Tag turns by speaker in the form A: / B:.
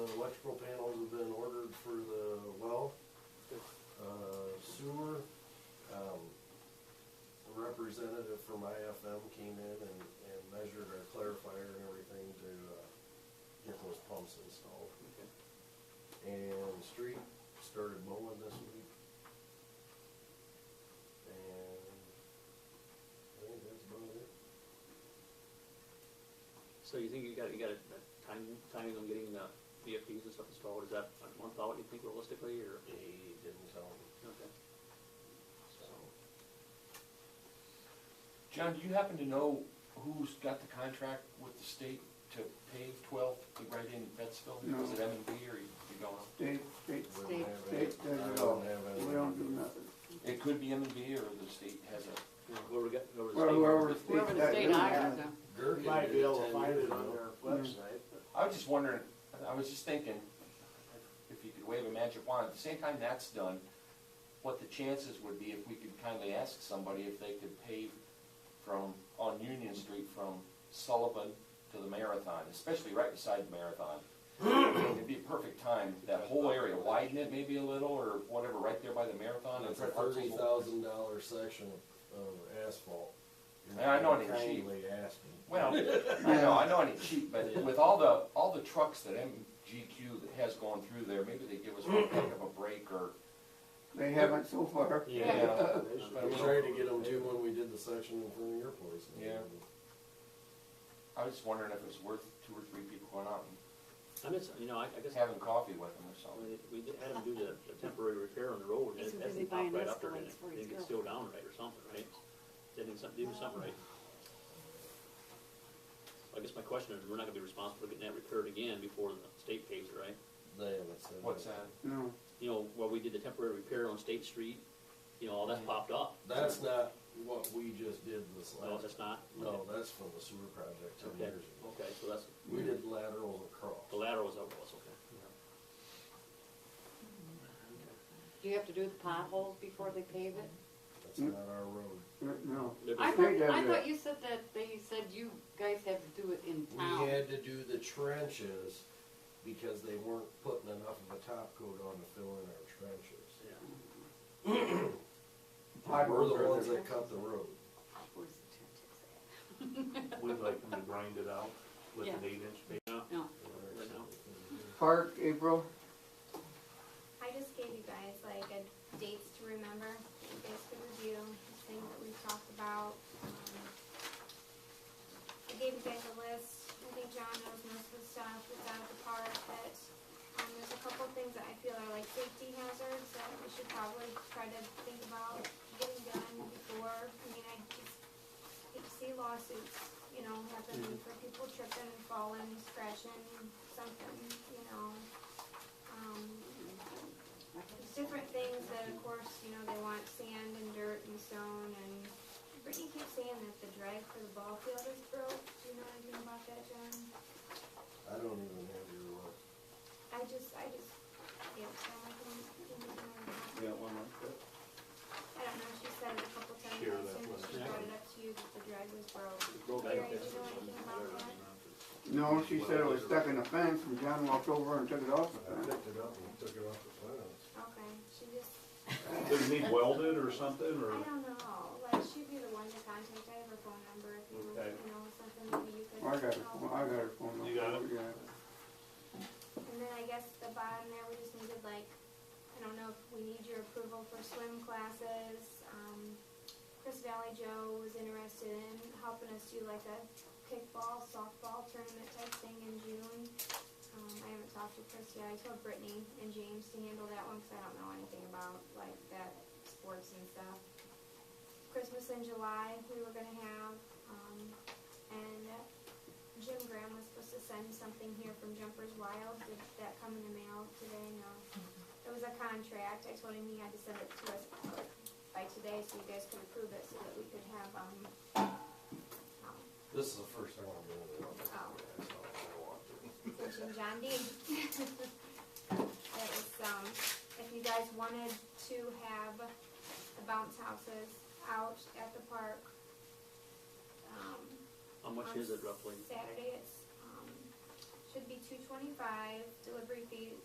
A: uh, um, representative from IFM came in and, and measured our clarifier and everything to, uh, get those pumps installed.
B: Okay.
A: And street started mowing this week. And I think that's about it.
B: So you think you got, you got a a time, timing on getting the VFDs and stuff installed, is that a month out, you think realistically, or?
A: He didn't tell me,
B: Okay.
A: so.
C: John, do you happen to know who's got the contract with the state to pave twelve to right in Betsville?
D: No.
C: Was it M and P or you you don't know?
D: State, state,
A: wouldn't have Uh, any-
D: state does
A: I
D: it
A: wouldn't
D: all.
A: have any-
D: We don't do nothing.
C: It could be M and B or the state has a,
B: Yeah, Where we got, where was the
D: Well,
B: state?
D: whoever-
E: Wherever the
D: That
E: state
D: really
E: hires
D: matters.
E: them.
A: Gerken
F: You might
A: did
F: be
A: it
F: able to
A: 10
F: find
A: years
F: it on
A: ago.
F: their website, but
C: I was just wondering, I was just thinking, if you could wave a magic wand, at the same time that's done, what the chances would be if we could kindly ask somebody if they could pave from, on Union Street from Sullivan to the Marathon, especially right beside the Marathon. It'd be a perfect time, that whole area, widen it maybe a little or whatever, right there by the Marathon.
A: It's a
C: and parts of-
A: thirty thousand dollar section of- of asphalt.
C: And I know it ain't cheap.
A: Kindly ask me.
C: Well, I know, I know it ain't cheap, but with all the, all the trucks that MGQ has gone through there, maybe they give us one heck of a break or
D: They haven't so far.
C: Yeah.
A: We tried to get them too when we did the section in front of your place.
C: Yeah. I was just wondering if it was worth two or three people going out and
B: I miss, you know, I, I guess,
C: having coffee with them or
B: when
C: something.
B: it- we did- had them do the, the temporary repair on the road, and
E: He's
B: it-
E: too
B: that
E: busy
B: thing popped
E: buying
B: right up there, and
E: escalates
B: it
E: for his
B: didn't get
E: girl.
B: sealed down right or something, right? Didn't something, do something right. I guess my question is, we're not gonna be responsible for getting that repaired again before the state pays it, right?
A: They haven't said.
C: What's
A: that.
C: that?
D: No,
B: You know, where we did the temporary repair on State Street, you know, all that popped up.
A: That's not what we just did this
C: Oh,
B: No,
A: last.
B: that's not?
A: No, that's from the sewer project ten
B: Okay,
A: years ago.
B: okay, so that's,
A: We did laterals
B: the
A: across.
B: lateral was over, was okay.
E: Do you have to do the potholes before they pave it?
A: That's not our road.
D: no.
B: They're
E: I
B: just-
D: They
E: thought,
D: does
E: I
D: it.
E: thought you said that, they said you guys have to do it in town.
A: We had to do the trenches because they weren't putting enough of a top coat on to fill in our trenches.
B: yeah.
A: We're
D: Potholes
A: the
D: are
A: ones
D: there.
A: that cut the road.
E: Where's the
F: we'd like them to grind it out with an
E: Yeah.
F: eight inch base.
E: trenches at? No,
B: Right now.
D: Park, April,
G: I just gave you guys like a dates to remember, that you guys could review, things that we've talked about. Um, I gave you guys a list, I think John knows most of the stuff that's out at the park, but, um, there's a couple things that I feel are like safety hazards that we should probably try to think about getting done before, I mean, I just hate to see lawsuits, you know, happen for people tripping, falling, scratching, something, you know. Um, there's different things that, of course, you know, they want sand and dirt and stone and Brittany keeps saying that the drag for the ball field is broke. Do you know anything about that, John?
A: I don't even have your road.
G: I just, I just, yeah, so I can, can you know about
F: Yeah, one like that.
G: I don't know, she said it a couple times,
F: Share
G: I
F: that
G: assume
F: with
G: she
B: us.
G: brought it up to you that the drag was broke.
B: Road
G: Gary,
B: back there.
G: do you know anything about that?
D: no, she said it was stuck in the fence and John walked over and took it off the
A: I
D: fence.
A: picked it up and took it off the plans.
G: Okay, she just,
F: Does it need welded or something, or?
G: I don't know, like, she'd be the one to contact, I have her phone number if you,
F: Okay.
G: you know, something maybe you could
D: I got her,
G: help.
D: phone- I got her phone number.
F: You got it?
D: Yeah.
G: And then I guess the bottom there, we just needed like, I don't know if we need your approval for swim classes. Um, Chris Valley Joe was interested in helping us do like a kickball, softball tournament type thing in June. Um, I haven't talked to Chris yet. I told Brittany and James to handle that one because I don't know anything about like that sports and stuff. Christmas in July, we were gonna have, um, and uh, Jim Graham was supposed to send something here from Jumpers Wild. Did that come in the mail today? No. It was a contract. I told him he had to send it to us by today so you guys could approve it so that we could have, um, um,
A: This is the first time I'm doing it.
G: Oh.
A: That's all I want to.
G: Rich and John Dean. That was, um, if you guys wanted to have the bounce houses out at the park, um,
B: How much
G: on
B: is it roughly?
G: Saturday, it's, um, should be two twenty-five, delivery